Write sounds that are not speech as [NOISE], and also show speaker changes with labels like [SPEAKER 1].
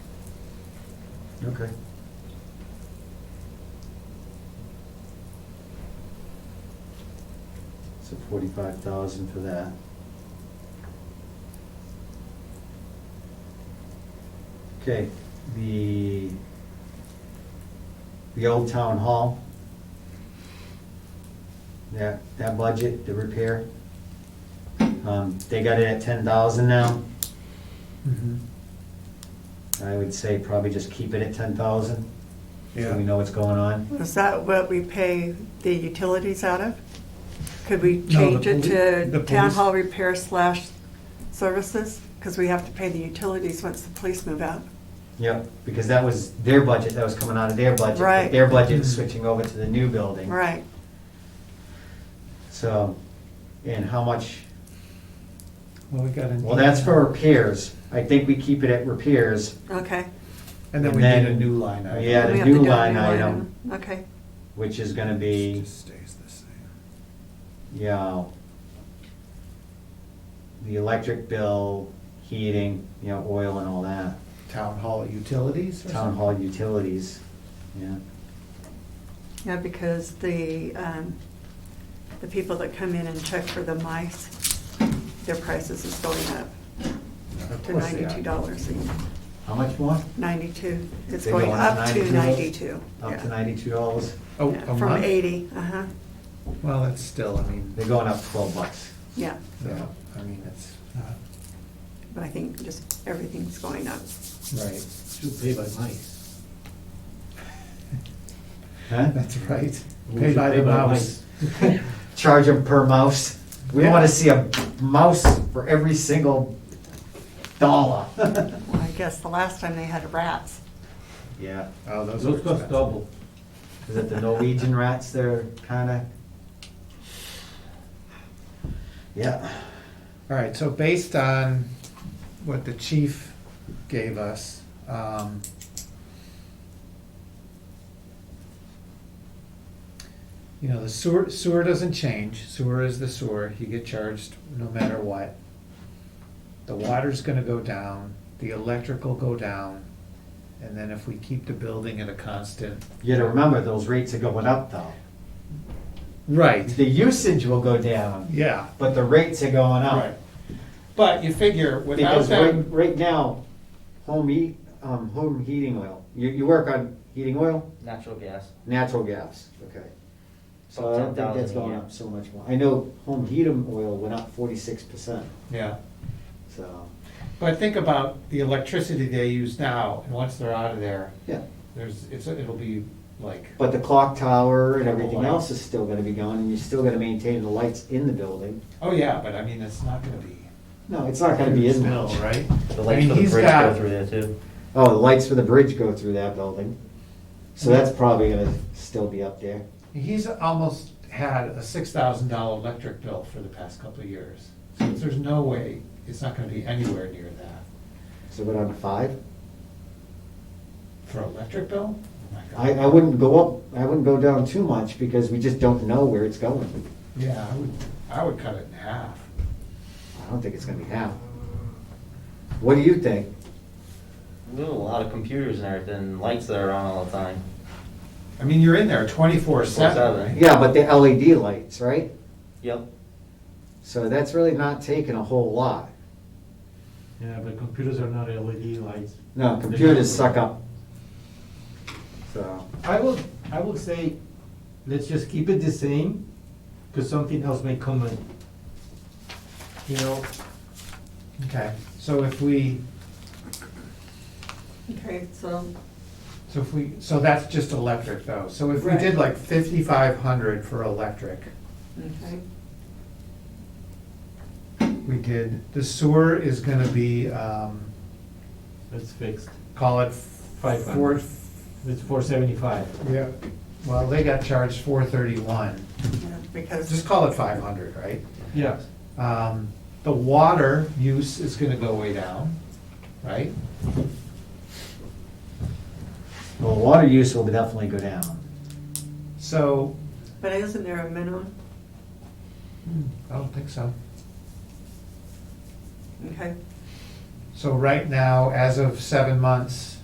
[SPEAKER 1] Okay. So forty-five thousand for that. Okay, the, the old town hall. That, that budget, the repair. Um, they got it at ten thousand now.
[SPEAKER 2] Mm-hmm.
[SPEAKER 1] I would say probably just keep it at ten thousand. So we know what's going on.
[SPEAKER 3] Is that what we pay the utilities out of? Could we change it
[SPEAKER 2] poli- the
[SPEAKER 3] to town
[SPEAKER 2] police-
[SPEAKER 3] hall repair slash services? Because we have to pay the utilities once the police move out.
[SPEAKER 1] Yep, because that was their budget, that was coming out of their budget. but
[SPEAKER 3] Right.
[SPEAKER 1] Their budget
[SPEAKER 2] Mm-hmm.
[SPEAKER 1] is switching over to the new building.
[SPEAKER 3] Right.
[SPEAKER 1] So, and how much,
[SPEAKER 2] Well, we got a.
[SPEAKER 1] well, that's for repairs. I think we keep it at repairs.
[SPEAKER 3] Okay.
[SPEAKER 2] And then we
[SPEAKER 1] and
[SPEAKER 2] need a
[SPEAKER 1] then-
[SPEAKER 2] new line item.
[SPEAKER 1] Yeah, the
[SPEAKER 3] We have to
[SPEAKER 1] new
[SPEAKER 3] do a
[SPEAKER 1] line item.
[SPEAKER 3] Okay.
[SPEAKER 1] Which is gonna be,
[SPEAKER 2] Just stays the same.
[SPEAKER 1] you know, the electric bill, heating, you know, oil and all that.
[SPEAKER 2] Town hall utilities or
[SPEAKER 1] Town
[SPEAKER 2] something?
[SPEAKER 1] hall utilities, yeah.
[SPEAKER 3] Yeah, because the, um, the people that come in and check for the mice, their prices is going up
[SPEAKER 2] Of
[SPEAKER 3] to
[SPEAKER 2] course they are.
[SPEAKER 3] ninety-two dollars.
[SPEAKER 1] How much more?
[SPEAKER 3] Ninety-two. It's
[SPEAKER 1] They're
[SPEAKER 3] going
[SPEAKER 1] going
[SPEAKER 3] up to ninety-two.
[SPEAKER 1] $92? Up
[SPEAKER 3] Yeah.
[SPEAKER 1] to ninety-two dollars.
[SPEAKER 2] Oh,
[SPEAKER 3] Yeah,
[SPEAKER 2] a
[SPEAKER 3] From
[SPEAKER 2] month?
[SPEAKER 3] eighty, uh-huh,
[SPEAKER 2] Well, that's still, I mean,
[SPEAKER 1] They're going up twelve bucks.
[SPEAKER 3] yeah.
[SPEAKER 2] yeah, I mean, it's not,
[SPEAKER 3] But I think just everything's going up.
[SPEAKER 2] right,
[SPEAKER 4] Who pay by mice?
[SPEAKER 1] Huh?
[SPEAKER 2] [LAUGHS] that's right.
[SPEAKER 4] We
[SPEAKER 2] Pay
[SPEAKER 4] should
[SPEAKER 2] by
[SPEAKER 4] pay
[SPEAKER 2] the
[SPEAKER 4] by
[SPEAKER 2] mouse.
[SPEAKER 1] charge them per mouse. We
[SPEAKER 2] Yeah.
[SPEAKER 1] want to see a mouse for every single dollar.
[SPEAKER 3] Well, I guess the last time they had rats.
[SPEAKER 1] [LAUGHS] Yeah,
[SPEAKER 2] Oh, those are
[SPEAKER 4] Those cost
[SPEAKER 2] expensive.
[SPEAKER 4] double.
[SPEAKER 1] is it the Norwegian rats that are kind of? Yeah,
[SPEAKER 2] All right, so based on what the chief gave us, um, you know, the sewer, sewer doesn't change. Sewer is the sewer. You get charged no matter what. The water's gonna go down, the electric will go down, and then if we keep the building at a constant.
[SPEAKER 1] you gotta remember, those rates are going up though.
[SPEAKER 2] Right,
[SPEAKER 1] The usage will go down,
[SPEAKER 2] yeah.
[SPEAKER 1] but the rates are going
[SPEAKER 2] Right.
[SPEAKER 1] up.
[SPEAKER 2] But you figure without
[SPEAKER 1] Because right,
[SPEAKER 2] them,
[SPEAKER 1] right now, home heat, um, home heating oil, you, you work on heating oil?
[SPEAKER 5] Natural gas.
[SPEAKER 1] Natural gas, okay. So I don't think that's
[SPEAKER 5] 10,000 a
[SPEAKER 1] going
[SPEAKER 5] year.
[SPEAKER 1] up so much more. I know home heating oil went up forty-six percent,
[SPEAKER 2] yeah.
[SPEAKER 1] so,
[SPEAKER 2] But think about the electricity they use now, and once they're out of there,
[SPEAKER 1] yeah.
[SPEAKER 2] there's, it's, it'll be like,
[SPEAKER 1] But the clock tower and
[SPEAKER 2] Couple
[SPEAKER 1] everything
[SPEAKER 2] lights.
[SPEAKER 1] else is still gonna be going, and you're still gonna maintain the lights in the building.
[SPEAKER 2] oh yeah, but I mean, it's not gonna be.
[SPEAKER 1] No, it's not gonna be as
[SPEAKER 2] Bill,
[SPEAKER 1] much.
[SPEAKER 2] Right?
[SPEAKER 5] The
[SPEAKER 2] I mean,
[SPEAKER 5] lights for the
[SPEAKER 2] he's
[SPEAKER 5] bridge
[SPEAKER 2] got-
[SPEAKER 5] go through there too.
[SPEAKER 1] Oh, the lights for the bridge go through that building, so that's probably gonna still be up there.
[SPEAKER 2] He's almost had a six thousand dollar electric bill for the past couple of years. So there's no way, it's not gonna be anywhere near that.
[SPEAKER 1] So we're down to five.
[SPEAKER 2] For electric bill? Oh my
[SPEAKER 1] I,
[SPEAKER 2] God.
[SPEAKER 1] I wouldn't go up, I wouldn't go down too much, because we just don't know where it's going.
[SPEAKER 2] Yeah, I would, I would cut it in half.
[SPEAKER 1] I don't think it's gonna be half. What do you think?
[SPEAKER 5] There's a lot of computers and everything, and lights that are on all the time.
[SPEAKER 2] I mean, you're in there twenty-four
[SPEAKER 5] Seven.
[SPEAKER 2] seven, right?
[SPEAKER 1] Yeah, but the LED lights, right?
[SPEAKER 5] Yep.
[SPEAKER 1] So that's really not taking a whole lot.
[SPEAKER 4] Yeah, but computers are not LED lights.
[SPEAKER 1] No, computers suck up. So,
[SPEAKER 4] I will, I will say, let's just keep it the same, because something else may come in. You know,
[SPEAKER 2] Okay, so if we,
[SPEAKER 3] Okay, so.
[SPEAKER 2] So if we, so that's just electric though, so if we did
[SPEAKER 3] Right.
[SPEAKER 2] like fifty-five hundred for electric,
[SPEAKER 3] Okay.
[SPEAKER 2] we did, the sewer is gonna be, um,
[SPEAKER 4] it's fixed,
[SPEAKER 2] call it
[SPEAKER 4] Five
[SPEAKER 2] four.
[SPEAKER 4] hundred. it's four seventy-five.
[SPEAKER 2] Yeah, well, they got charged four thirty-one,
[SPEAKER 3] yeah, Because,
[SPEAKER 2] just call it five hundred, right?
[SPEAKER 4] Yeah,
[SPEAKER 2] Um, the water use is gonna go way down, right?
[SPEAKER 1] well, water use will definitely go down.
[SPEAKER 2] So,
[SPEAKER 3] but isn't there a minimum?
[SPEAKER 2] I don't think so.
[SPEAKER 3] Okay,
[SPEAKER 2] So right now, as of seven months,